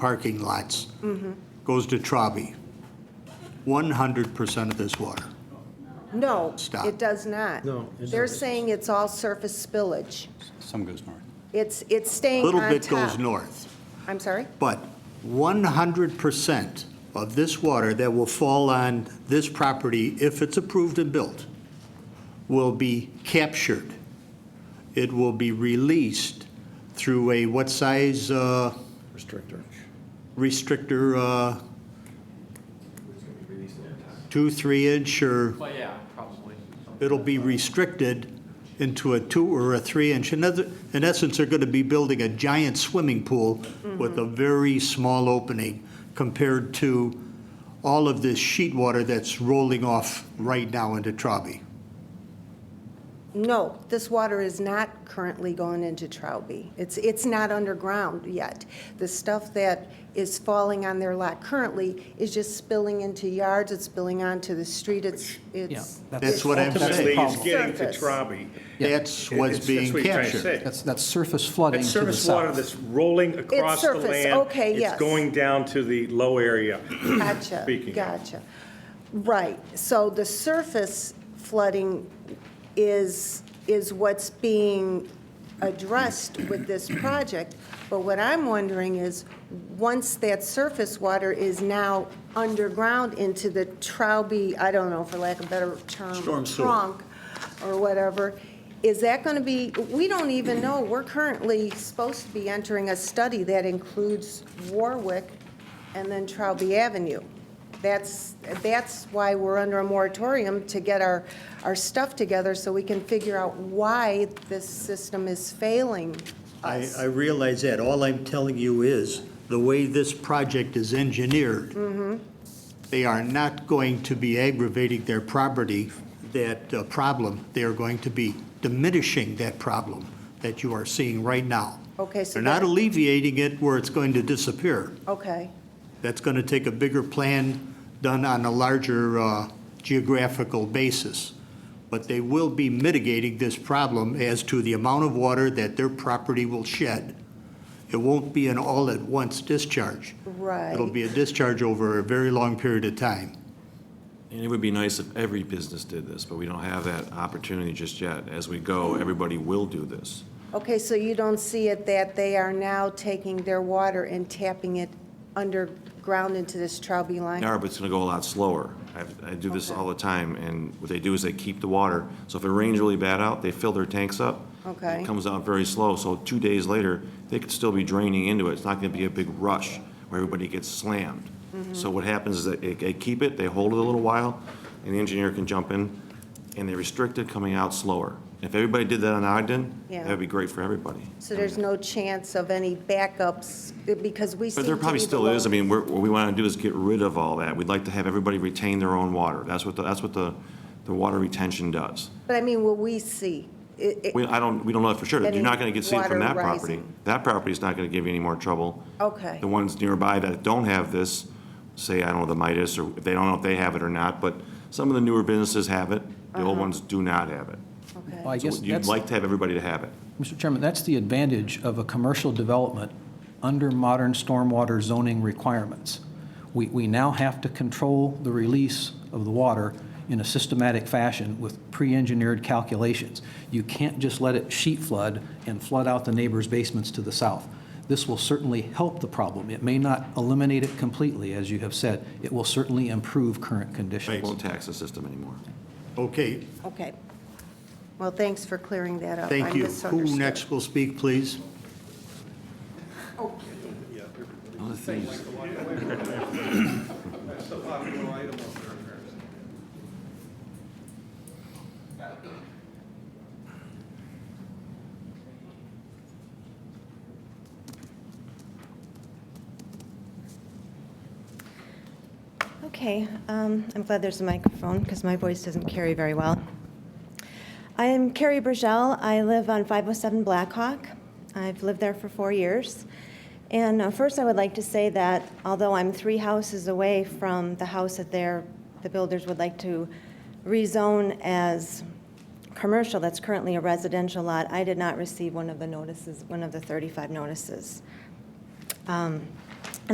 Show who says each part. Speaker 1: parking lots goes to Traube. 100% of this water.
Speaker 2: No,
Speaker 1: Stop.
Speaker 2: it does not.
Speaker 3: No, it
Speaker 2: They're
Speaker 3: doesn't.
Speaker 2: saying it's all surface spillage.
Speaker 4: Some goes north.
Speaker 2: It's, it's staying on
Speaker 1: Little
Speaker 2: top.
Speaker 1: bit goes north,
Speaker 2: I'm sorry?
Speaker 1: but 100% of this water that will fall on this property, if it's approved and built, will be captured. It will be released through a what size uh,
Speaker 3: Restrictor.
Speaker 1: restrictor, uh, two, three inch, or
Speaker 5: Well, yeah, probably.
Speaker 1: it'll be restricted into a two or a three inch. In other- in essence, they're going to be building a giant swimming pool with a very small opening compared to all of this sheet water that's rolling off right now into Traube.
Speaker 2: No, this water is not currently going into Trowbridge. It's, it's not underground yet. The stuff that is falling on their lot currently is just spilling into yards, it's spilling onto the street, it's, it's.
Speaker 1: That's what I'm
Speaker 6: Ultimately,
Speaker 1: saying.
Speaker 6: it's getting to
Speaker 2: Surface.
Speaker 6: Trabe.
Speaker 1: That's
Speaker 6: It's-
Speaker 1: what's
Speaker 6: that's
Speaker 1: being
Speaker 6: what you're trying to
Speaker 1: captured.
Speaker 6: say.
Speaker 4: That's, that's surface flooding
Speaker 6: It's
Speaker 4: to the
Speaker 6: surface water
Speaker 4: south.
Speaker 6: that's rolling across the
Speaker 2: surface,
Speaker 6: land.
Speaker 2: okay, yes.
Speaker 6: It's going down to the low area.
Speaker 2: Gotcha,
Speaker 6: Speaking.
Speaker 2: gotcha. Right, so the surface flooding is, is what's being addressed with this project, but what I'm wondering is, once that surface water is now underground into the Trowbridge, I don't know, for lack of a better term.
Speaker 1: Storm sewer.
Speaker 2: Trunk or whatever, is that going to be, we don't even know, we're currently supposed to be entering a study that includes Warwick and then Trowbridge Avenue. That's, that's why we're under a moratorium, to get our, our stuff together so we can figure out why this system is failing
Speaker 1: I,
Speaker 2: us.
Speaker 1: I realize that. All I'm telling you is, the way this project is engineered,
Speaker 2: Mm-hmm.
Speaker 1: they are not going to be aggravating their property, that uh, problem. They are going to be diminishing that problem that you are seeing right now.
Speaker 2: Okay, so
Speaker 1: They're not
Speaker 2: that-
Speaker 1: alleviating it where it's going to disappear.
Speaker 2: Okay,
Speaker 1: That's going to take a bigger plan done on a larger uh, geographical basis. But they will be mitigating this problem as to the amount of water that their property will shed. It won't be an all-at-once discharge.
Speaker 2: right.
Speaker 1: It'll be a discharge over a very long period of time.
Speaker 7: And it would be nice if every business did this, but we don't have that opportunity just yet. As we go, everybody will do this.
Speaker 2: Okay, so you don't see it that they are now taking their water and tapping it underground into this Trowbridge line?
Speaker 7: Now, but it's going to go a lot slower. I- I do this all the time, and what they do is they keep the water. So if it rains really bad out, they fill their tanks up.
Speaker 2: Okay.
Speaker 7: It comes out very slow, so two days later, they could still be draining into it. It's not going to be a big rush where everybody gets slammed.
Speaker 2: Mm-hmm.
Speaker 7: So what happens is that they- they keep it, they hold it a little while, and the engineer can jump in, and they restrict it coming out slower. If everybody did that on Ogden,
Speaker 2: Yeah.
Speaker 7: that'd be great for everybody.
Speaker 2: So there's no chance of any backups, because we seem
Speaker 7: But
Speaker 2: to
Speaker 7: there probably
Speaker 2: be the
Speaker 7: still is. I
Speaker 2: lone-
Speaker 7: mean, we're- what we want to do is get rid of all that. We'd like to have everybody retain their own water. That's what, the- that's what the, the water retention does.
Speaker 2: But I mean, will we see? It- it-
Speaker 7: We, I don't, we don't know that for sure. You're not going to get seen
Speaker 2: Any
Speaker 7: from that
Speaker 2: water
Speaker 7: property.
Speaker 2: rising.
Speaker 7: That property's not going to give you any more trouble.
Speaker 2: Okay.
Speaker 7: The ones nearby that don't have this, say, I don't know, the Midas, or they don't know if they have it or not, but some of the newer businesses have it. The
Speaker 2: Uh-huh.
Speaker 7: old ones do not have it.
Speaker 2: Okay.
Speaker 4: Well, I guess
Speaker 7: So you'd
Speaker 4: that's,
Speaker 7: like to have everybody to have it.
Speaker 4: Mr. Chairman, that's the advantage of a commercial development under modern stormwater zoning requirements. We, we now have to control the release of the water in a systematic fashion with pre-engineered calculations. You can't just let it sheet flood and flood out the neighbors' basements to the south. This will certainly help the problem. It may not eliminate it completely, as you have said. It will certainly improve current
Speaker 7: It
Speaker 4: conditions.
Speaker 7: won't tax the system anymore.
Speaker 1: Okay,
Speaker 2: Okay. Well, thanks for clearing that up. I
Speaker 1: thank you. Who
Speaker 2: misunderstood.
Speaker 1: next will speak, please?
Speaker 8: Okay, um, I'm glad there's a microphone because my voice doesn't carry very well. I am Carrie Burgell. I live on 507 Blackhawk. I've lived there for four years. And uh, first, I would like to say that although I'm three houses away from the house that they're, the builders would like to rezone as commercial, that's currently a residential lot, I did not receive one of the notices, one of the 35 notices. Um,